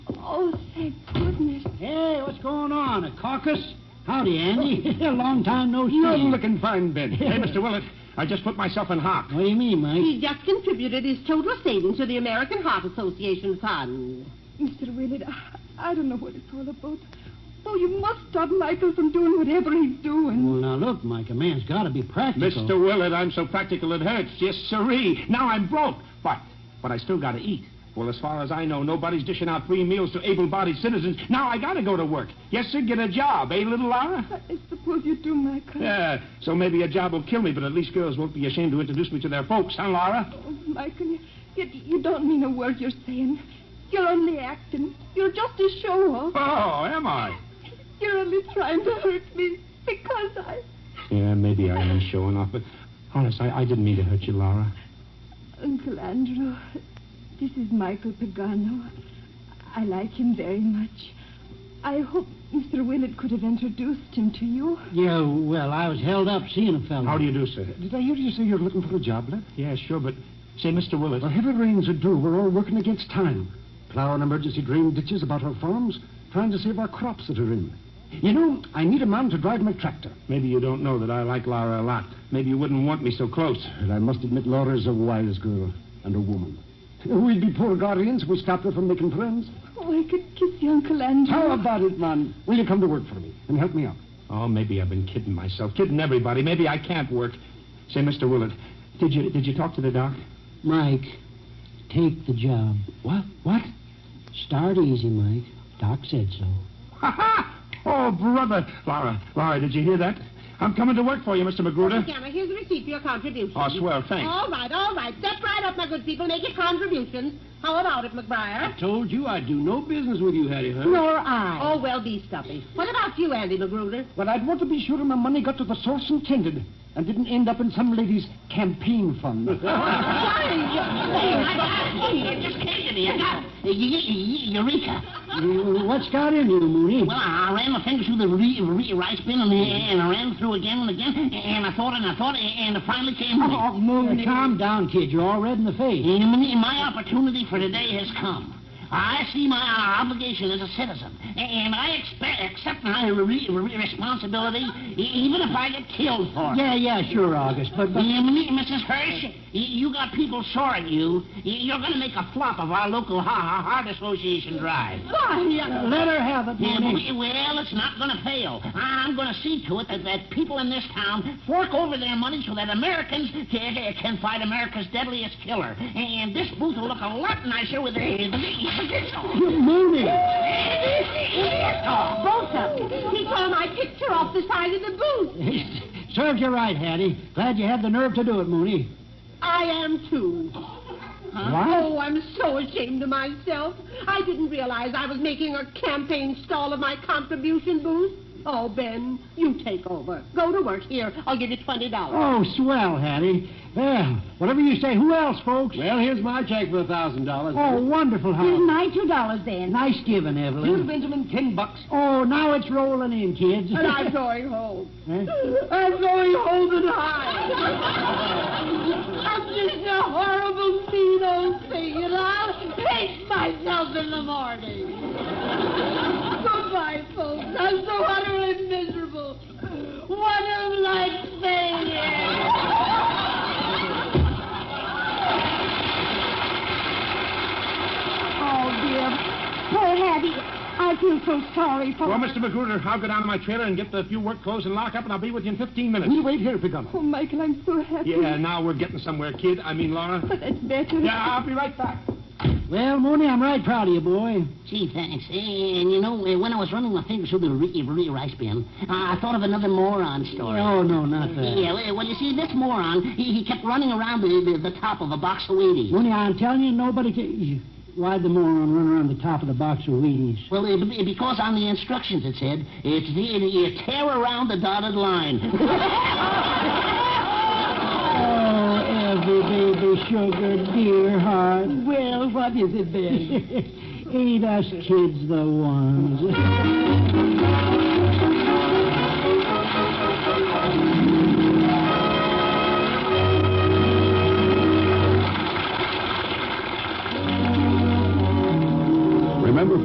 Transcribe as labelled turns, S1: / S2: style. S1: my Oh, goodness.
S2: Hey, what's going on? A caucus? Howdy, Andy. Long time no see.
S3: You're looking fine, Ben. hey, Mr. Willett, I just put myself in hock.
S2: What do you mean, Mike?
S4: He's just contributed his total savings to the American Heart Association Fund.
S1: Mr. Willard, I, I don't know what it's all about. Oh, you must stop Michael from doing whatever he's doing.
S2: Well, now look, Mike, a man's got to be practical.
S3: Mr. Willett, I'm so practical it hurts. Yes, siree. Now I'm broke. But, but I still got to eat. Well, as far as I know, nobody's dishing out free meals to able-bodied citizens. Now I got to go to work. Yes, sir, get a job, eh, little Laura?
S1: I suppose you do, Michael.
S3: Yeah, so maybe a job will kill me, but at least girls won't be ashamed to introduce me to their folks, huh, Laura?
S1: Oh, Michael, you, you, you don't mean a word you're saying. You're only acting. You're just a show-off.
S3: Oh, am I?
S1: You're only trying to hurt me because I...
S3: Yeah, maybe I am showing off, but honest, I, I didn't mean to hurt you, Laura.
S1: Uncle Andrew, this is Michael Pagano. I like him very much. I hope Mr. Willard could have introduced him to you.
S2: Yeah, well, I was held up seeing a fellow.
S3: How do you do, sir?
S5: Mm-hmm. Did I hear you say you're looking for a job, Lip?
S3: Yeah, sure, but say, Mr. Willett.
S5: The heavy rains are due. We're all working against time. Plowing emergency drain ditches about our farms, trying to save our crops that are in. You know, I need a man to drive my tractor.
S3: Maybe you don't know that I like Laura a lot. Maybe you wouldn't want me so close.
S5: And I must admit, Laura's a wise girl and a woman. We'd be poor guardians if we stopped her from making friends.
S1: Oh, I could kiss you, Uncle Andrew.
S5: How about it, man? Will you come to work for me and help me out?
S3: Oh, maybe I've been kidding myself, kidding everybody. Maybe I can't work. Say, Mr. Willard, did you did you talk to the doc?
S2: Mike, take the job.
S3: What? What?
S2: Start easy, Mike. Doc said so.
S3: Ha ha! Oh, brother, Laura, Laura, did you hear that? I'm coming to work for you, Mr. Magruder.
S4: Camera, here's the receipt for your contribution.
S3: Oh, swell, thanks.
S4: All right, all right. Step right up, my good people. Make your contributions. How about it, McBriar?
S6: Told you I'd do no business with you, Hattie Hurd.
S4: Nor I. Oh, well, be stuffy. What about you, Andy Magruder?
S5: Well, I'd want to be sure my money got to the source intended and didn't end up in some lady's campaign fund.
S4: Sorry, you
S7: It just came to me. I got it. Y- y- y- Eureka.
S2: You- What's got into you, Mooney?
S7: Well, I I ran my fingers through the re- re- rice bin and, and I ran through again and again, and I thought and I thought, and it finally came to me.
S2: Oh, Mooney. Calm down, kid. You're all red in the face.
S7: And my opportunity for today has come. I see my obligation as a citizen, and I expect, accept my re- re- responsibility, e- even if I get killed for it.
S2: Yeah, yeah, sure, August, but... but...
S7: You mean, Mrisses Hirsch, y- you got people sore at you. Y- You're going to make a flop of our local ha- ha- Heart Association drive.
S2: Why, let her have it,
S7: Yeah,
S2: Mooney.
S7: we- well, it's not going to fail. I'm going to see to it that, that people in this town fork over their money so that Americans can, can fight America's deadliest killer. And this booth will look a lot nicer with a
S2: Mooney!
S4: Both of you. He tore my picture off the side of the booth.
S2: Serves you right, Hattie. Glad you had the nerve to do it, Mooney.
S4: I am, too.
S2: What?
S4: Oh, I'm so ashamed of myself. I didn't realize I was making a campaign stall of my contribution booth. Oh, Ben, you take over. Go to work here. I'll give you twenty dollars.
S2: Oh, swell, Hattie. Well, whatever you say. Who else, folks?
S6: Well, here's my check for a thousand dollars.
S2: Oh, wonderful, Howard.
S4: my two dollars, Ben.
S2: Nice giving, Evelyn.
S6: Benjamin, ten bucks.
S2: Oh, now it's rolling in, kids.
S4: And I'm going home.
S2: Huh?
S4: I'm going home and hide. I'm just a horrible, mean old thing, and I'll hate myself in the morning. Goodbye, folks. I'm so utterly miserable. What a life failure.
S1: Oh, dear. Poor Hattie. I feel so sorry for
S3: Well, Mr. Magruder, I'll go down to my trailer and get the few work clothes and lock up, and I'll be with you in 15 minutes.
S5: We'll wait here, Pagano.
S1: Oh, Michael, I'm so happy.
S3: Yeah, now we're getting somewhere, kid. I mean, Laura.
S1: But that's better.
S3: Yeah, I'll be right back.
S2: Well, Mooney, I'm right proud of you, boy.
S7: Gee, thanks. And you know, eh, when I was running my fingers through the re- re- rice bin, I thought of another moron story.
S2: Oh, no, not that.
S7: Yeah, well, well, you see, this moron, he, he kept running around the, the, the top of a box of Wheaties.
S2: Mooney, I'm telling you, nobody can... Why'd the moron run around the top of the box of Wheaties?
S7: Well, eh, be- because on the instructions it said, it's the, you tear around the dotted line.
S2: Oh, every baby sugar, dear heart.
S4: Well, what is it, Ben?
S2: Ain't us kids the ones?